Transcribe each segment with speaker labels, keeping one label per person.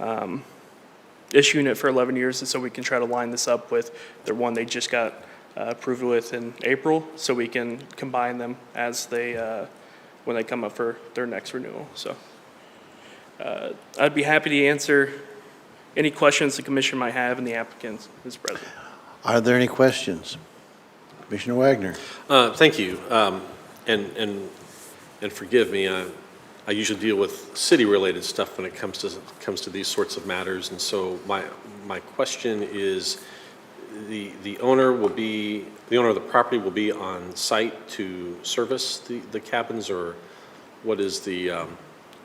Speaker 1: um, issuing it for 11 years, and so we can try to line this up with the one they just got uh, approved with in April, so we can combine them as they, uh, when they come up for their next renewal, so. uh, I'd be happy to answer any questions the commission might have and the applicants is present.
Speaker 2: Are there any questions? Commissioner Wagner?
Speaker 3: Uh, Thank you. Um, And, and, and forgive me, I I usually deal with city-related stuff when it comes to, comes to these sorts of matters. And so my, my question is, the, the owner will be, the owner of the property will be on site to service the, the cabins? Or what is the, um,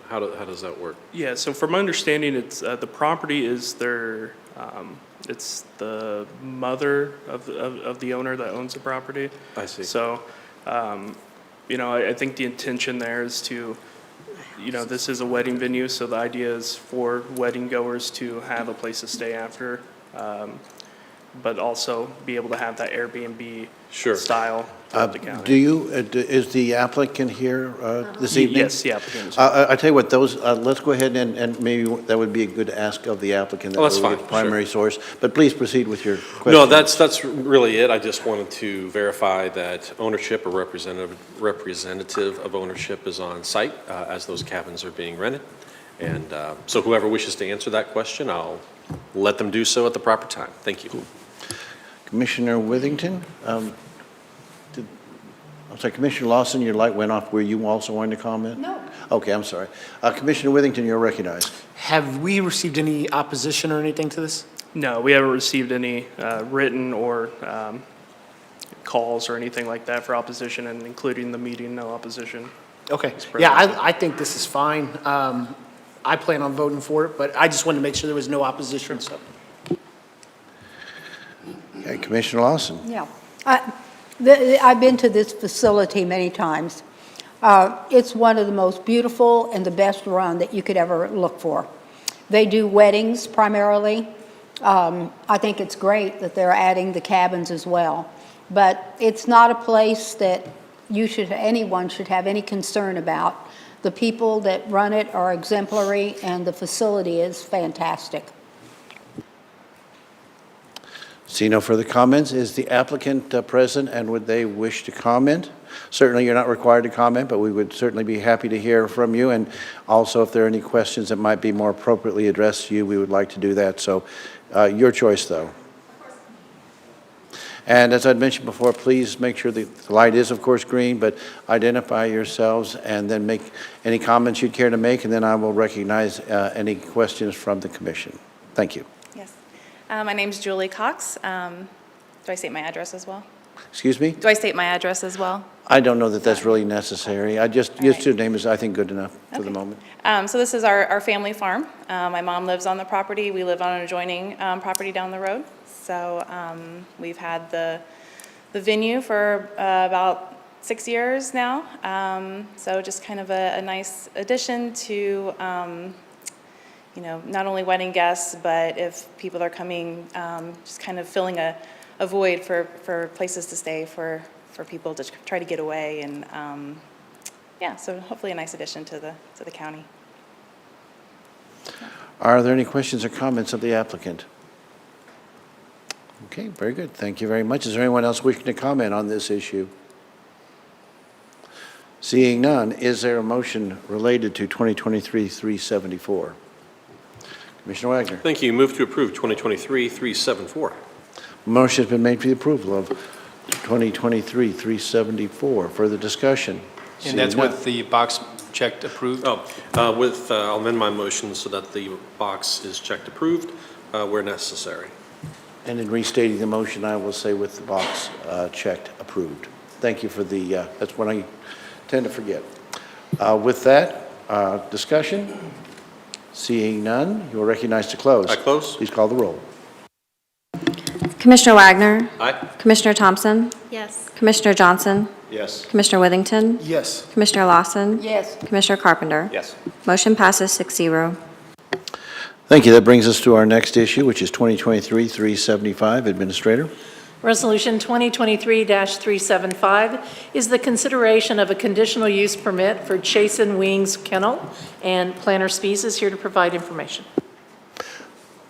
Speaker 3: how, do- how does that work?
Speaker 1: Yeah, so from my understanding, it's, uh, the property is their, um, it's the mother of, of, of the owner that owns the property.
Speaker 3: I see.
Speaker 1: So, um, you know, I, I think the intention there is to, you know, this is a wedding venue, so the idea is for wedding goers to have a place to stay after, um, but also be able to have that Airbnb
Speaker 3: Sure.
Speaker 1: style
Speaker 2: Uh,
Speaker 1: of the
Speaker 2: Do
Speaker 1: county.
Speaker 2: you, uh, d- is the applicant here uh, this evening?
Speaker 1: Yes, the applicant is.
Speaker 2: Uh, I I tell you what, those, uh, let's go ahead and, and maybe that would be a good ask of the applicant. that
Speaker 3: Oh, that's
Speaker 2: we get
Speaker 3: fine,
Speaker 2: the
Speaker 3: sure.
Speaker 2: Primary source, but please proceed with your question.
Speaker 3: No, that's, that's really it. I just wanted to verify that ownership or representative, representative of ownership is on site uh, as those cabins are being rented. And uh, so whoever wishes to answer that question, I'll let them do so at the proper time. Thank you.
Speaker 2: Commissioner Withington? um, did- I'm sorry, Commissioner Lawson, your light went off. Were you also wanting to comment?
Speaker 4: No.
Speaker 2: Okay, I'm sorry. Uh, Commissioner Withington, you're recognized.
Speaker 5: Have we received any opposition or anything to this?
Speaker 1: No, we haven't received any uh, written or um, calls or anything like that for opposition, and including the meeting, no opposition.
Speaker 5: Okay,
Speaker 1: pretty
Speaker 5: yeah, I, I think this is fine. Um, I plan on voting for it, but I just wanted to make sure there was no opposition, so.
Speaker 2: Okay, Commissioner Lawson?
Speaker 4: Yeah. I- th- th- I've been to this facility many times. Uh, It's one of the most beautiful and the best run that you could ever look for. They do weddings primarily. Um, I think it's great that they're adding the cabins as well. But it's not a place that you should, anyone should have any concern about. The people that run it are exemplary, and the facility is fantastic.
Speaker 2: See no further comments. Is the applicant uh, present, and would they wish to comment? Certainly, you're not required to comment, but we would certainly be happy to hear from you, and also if there are any questions that might be more appropriately addressed to you, we would like to do that. So uh, your choice, though. And as I'd mentioned before, please make sure that the light is, of course, green, but identify yourselves and then make any comments you'd care to make, and then I will recognize uh, any questions from the commission. Thank you.
Speaker 6: Yes. Uh, My name's Julie Cox. Um, Do I state my address as well?
Speaker 2: Excuse me?
Speaker 6: Do I state my address as well?
Speaker 2: I don't know that that's really necessary. I just, your
Speaker 6: right.
Speaker 2: student name is, I think, good enough for the
Speaker 6: Okay.
Speaker 2: moment.
Speaker 6: Um, So this is our, our family farm. Uh, My mom lives on the property. We live on an adjoining um, property down the road. So um, we've had the, the venue for uh, about six years now. Um, So just kind of a, a nice addition to, um, you know, not only wedding guests, but if people are coming, um, just kind of filling a, a void for, for places to stay, for, for people to try to get away. And, um, yeah, so hopefully a nice addition to the, to the county.
Speaker 2: Are there any questions or comments of the applicant? Okay, very good. Thank you very much. Is there anyone else wishing to comment on this issue? Seeing none, is there a motion related to 2023-374? Commissioner Wagner?
Speaker 3: Thank you. Move to approve 2023-374.
Speaker 2: Motion's been made for the approval of 2023-374. Further discussion?
Speaker 7: And that's
Speaker 2: Seeing none.
Speaker 7: what the box checked approved?
Speaker 3: Oh, uh, with, uh, I'll amend my motion so that the box is checked approved uh, where necessary.
Speaker 2: And in restating the motion, I will say with the box uh, checked, approved. Thank you for the, uh, that's what I tend to forget. Uh, With that, uh, discussion? Seeing none, you are recognized to close.
Speaker 3: I close.
Speaker 2: Please call the roll.
Speaker 8: Commissioner Wagner,
Speaker 3: Aye?
Speaker 8: Commissioner Thompson,
Speaker 9: Yes.
Speaker 8: Commissioner Johnson,
Speaker 3: Yes.
Speaker 8: Commissioner Withington,
Speaker 5: Yes.
Speaker 8: Commissioner Lawson,
Speaker 4: Yes.
Speaker 8: Commissioner Carpenter.
Speaker 3: Yes.
Speaker 8: Motion passes six zero.
Speaker 2: Thank you. That brings us to our next issue, which is 2023-375. Administrator?
Speaker 9: Resolution 2023-375 is the consideration of a conditional use permit for Chasin Wings Kennel, and Planner Spees is here to provide information.